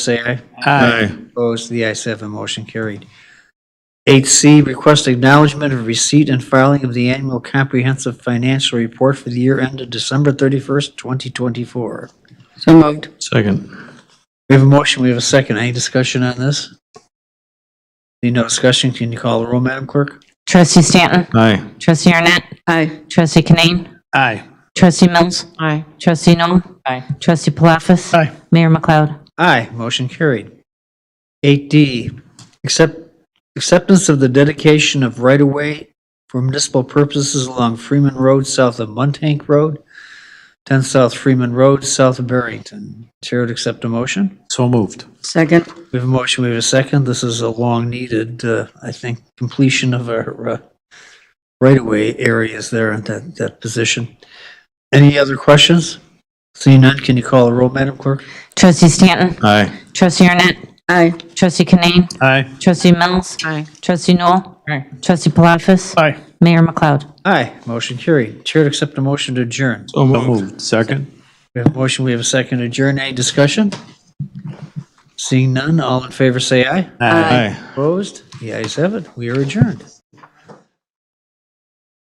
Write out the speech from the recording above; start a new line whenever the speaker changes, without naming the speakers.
say aye.
Aye.
Opposed, the ayes have it, motion carried. 8C, request acknowledgement of receipt and filing of the annual comprehensive financial report for the year ended December 31st, 2024.
So moved.
Second.
We have a motion, we have a second. Any discussion on this? Need no discussion, can you call the roll, Madam Clerk?
Trustee Stanton?
Aye.
Trustee Arnett?
Aye.
Trustee Kinane?
Aye.
Trustee Mills?
Aye.
Trustee Noel?
Aye.
Trustee Palafis?
Aye.
Mayor McLeod?
Aye, motion carried. 8D, accept, acceptance of the dedication of right-of-way for municipal purposes along Freeman Road south of Muntank Road, 10 South Freeman Road, south of Barrington. Chair would accept a motion.
So moved.
Second.
We have a motion, we have a second. This is a long-needed, uh, I think, completion of our uh, right-of-way areas there at that, that position. Any other questions? Seeing none, can you call the roll, Madam Clerk?
Trustee Stanton?
Aye.
Trustee Arnett?
Aye.
Trustee Kinane?
Aye.
Trustee Mills?
Aye.
Trustee Noel?
Aye.
Trustee Palafis?
Aye.
Mayor McLeod?
Aye, motion carried. Chair would accept a motion to adjourn.
So moved. Second.
We have a motion, we have a second to adjourn. Any discussion? Seeing none, all in favor say aye.
Aye.
Opposed? The ayes have it. We are adjourned.